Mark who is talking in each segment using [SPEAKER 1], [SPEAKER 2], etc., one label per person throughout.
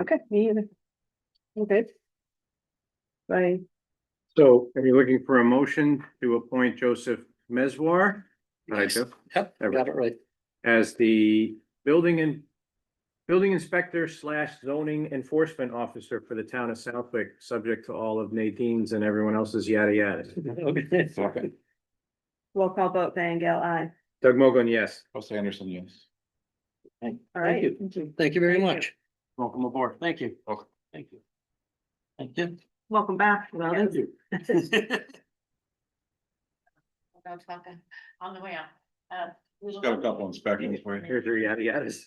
[SPEAKER 1] Okay, me either. I'm good. Bye.
[SPEAKER 2] So are you looking for a motion to appoint Joseph Mezwar? Right, Jeff?
[SPEAKER 3] Yep,
[SPEAKER 2] There we
[SPEAKER 3] got it right.
[SPEAKER 2] As the building and building inspector slash zoning enforcement officer for the town of Southwick, subject to all of Nadine's and everyone else's yada yada.
[SPEAKER 3] Okay.
[SPEAKER 4] Second,
[SPEAKER 1] Roll call vote, Van Gale, aye.
[SPEAKER 2] Doug Mogul, yes.
[SPEAKER 4] Russ Anderson, yes.
[SPEAKER 1] All
[SPEAKER 3] Thank
[SPEAKER 1] right.
[SPEAKER 3] you. Thank you very
[SPEAKER 1] Thank you.
[SPEAKER 3] much.
[SPEAKER 2] Welcome aboard.
[SPEAKER 3] Thank you.
[SPEAKER 4] Welcome.
[SPEAKER 3] Thank you. Thank you.
[SPEAKER 1] Welcome back. Well,
[SPEAKER 3] Thank you.
[SPEAKER 5] Go talk on- on the way out. Uh, we will-
[SPEAKER 4] Got a couple inspections for you.
[SPEAKER 2] Here's your yada yadas.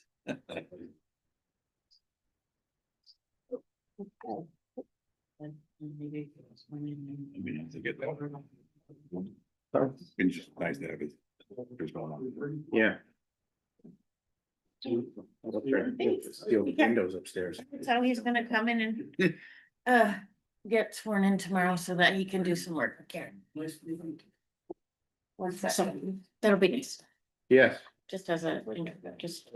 [SPEAKER 5] And maybe it's one in-
[SPEAKER 4] I mean, I have to get that.
[SPEAKER 2] Sorry?
[SPEAKER 4] It's just nice to have it. There's going on.
[SPEAKER 2] Yeah. Steal the
[SPEAKER 5] Yeah.
[SPEAKER 2] windows upstairs.
[SPEAKER 5] So he's gonna come in and uh, get sworn in tomorrow so that he can do some work. Okay. One second. That'll be nice,
[SPEAKER 2] Yes,
[SPEAKER 5] just as a, you know, just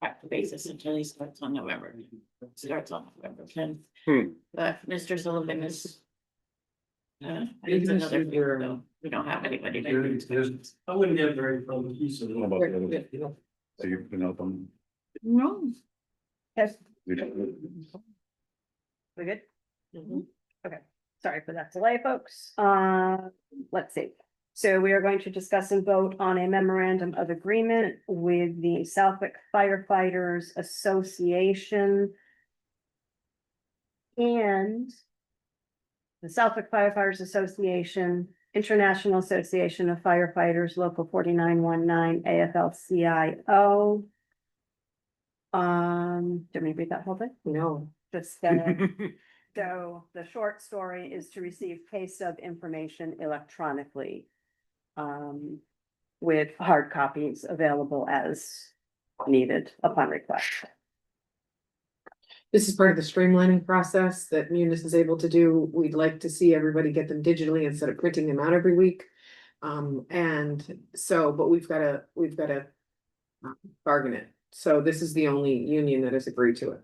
[SPEAKER 5] back to basis until he starts on November, starts on November tenth.
[SPEAKER 2] Hmm.
[SPEAKER 5] But Mr. Sullivan is uh,
[SPEAKER 6] He's
[SPEAKER 5] needs another,
[SPEAKER 6] Mr. Durham.
[SPEAKER 1] um,
[SPEAKER 5] so we don't have anybody.
[SPEAKER 6] I wouldn't get very from piece of.
[SPEAKER 4] How about the others? So you can help them.
[SPEAKER 5] No.
[SPEAKER 1] Yes,
[SPEAKER 4] We don't-
[SPEAKER 1] we're good. Sorry for that delay, folks. Mm-hmm. Uh, let's see. So we are going to discuss and vote on a memorandum of agreement with the Southwick Firefighters Association. And the Southwick Firefighters Association, International Association of Firefighters, Local forty-nine one nine, AFL-CIO. Um, do you want me to read that whole thing? No. Just, uh, so the short story is to receive pay stub information electronically. Um, with hard copies available as needed upon request.
[SPEAKER 7] This is part of the streamlining process that Munis is able to do. We'd like to see everybody get them digitally instead of printing them out every week. Um, and so, but we've gotta, we've gotta uh, bargain it. So this is the only union that has agreed to it.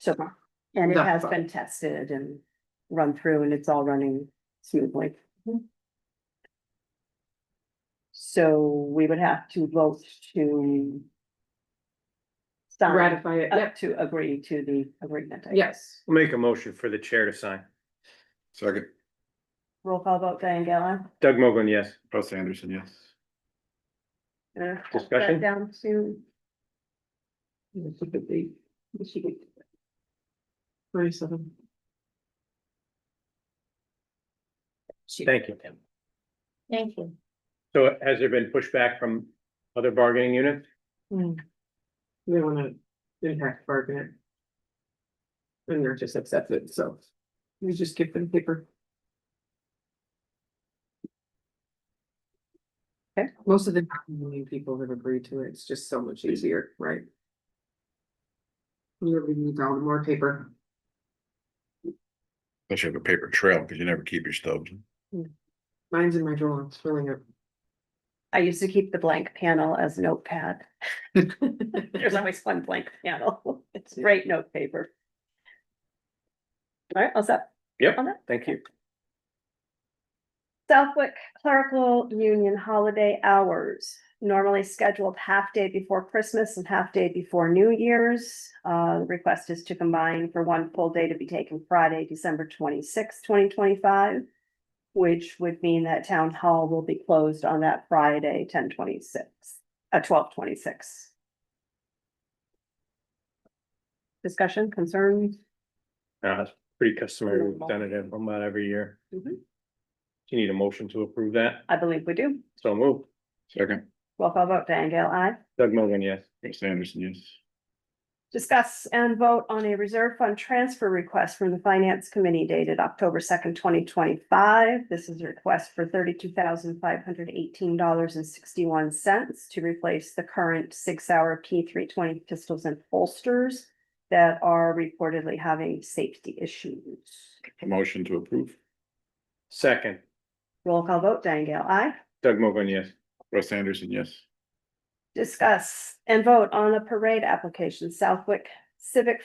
[SPEAKER 1] So, and it
[SPEAKER 7] Not
[SPEAKER 1] has
[SPEAKER 7] fun.
[SPEAKER 1] been tested and run through and it's all running smoothly. So we would have to vote to. Sign
[SPEAKER 7] Ratify it,
[SPEAKER 1] up
[SPEAKER 7] yep,
[SPEAKER 1] to agree to the agreement. I guess.
[SPEAKER 7] yes.
[SPEAKER 2] make a motion for the chair to sign.
[SPEAKER 4] Second,
[SPEAKER 1] Roll call vote, Diane Gale.
[SPEAKER 2] Doug Mogul, yes.
[SPEAKER 4] Russ Anderson, yes.
[SPEAKER 1] Uh, cut that
[SPEAKER 2] Discussion?
[SPEAKER 1] Down to.
[SPEAKER 7] Twenty-seven.
[SPEAKER 2] Thank you.
[SPEAKER 5] Thank you.
[SPEAKER 2] So has there been pushback from other bargaining units?
[SPEAKER 7] They wanna impact bargain it. And they're just accept it, so we just give them paper.
[SPEAKER 1] Okay.
[SPEAKER 7] Most of the union people have agreed to it, it's just so much easier, right? You really need all the more paper.
[SPEAKER 4] I should have a paper trail because you never keep your stubs.
[SPEAKER 7] Mine's in my drawer, it's filling up.
[SPEAKER 1] I used to keep the blank panel as notepad. There's always one blank panel. It's great note paper. All right, all set.
[SPEAKER 2] Yep.
[SPEAKER 1] On that?
[SPEAKER 2] Thank you.
[SPEAKER 1] Southwick Clerical Union holiday hours, normally scheduled half day before Christmas and half day before New Year's. Uh, the request is to combine for one full day to be taken Friday, December twenty-sixth, twenty twenty-five. Which would mean that town hall will be closed on that Friday, ten twenty-six, uh, twelve twenty-six. Discussion, concerns?
[SPEAKER 2] Uh, it's pretty customary, we've done it about every year. Do
[SPEAKER 1] Mhm.
[SPEAKER 2] you need a motion to approve that?
[SPEAKER 1] I believe we do.
[SPEAKER 2] So move.
[SPEAKER 4] Second,
[SPEAKER 1] Roll call vote, Diane Gale, aye.
[SPEAKER 2] Doug Mogul, yes.
[SPEAKER 4] Russ Anderson, yes.
[SPEAKER 1] Discuss and vote on a reserve fund transfer request from the Finance Committee dated October second, twenty twenty-five. This is a request for thirty-two thousand five hundred eighteen dollars and sixty-one cents to replace the current six-hour P three twenty pistols and holsters that are reportedly having safety issues.
[SPEAKER 4] A motion to approve.
[SPEAKER 2] Second,
[SPEAKER 1] Roll call vote, Diane Gale, aye.
[SPEAKER 2] Doug Mogul, yes.
[SPEAKER 4] Russ Anderson, yes.
[SPEAKER 1] Discuss and vote on a parade application, Southwick Civic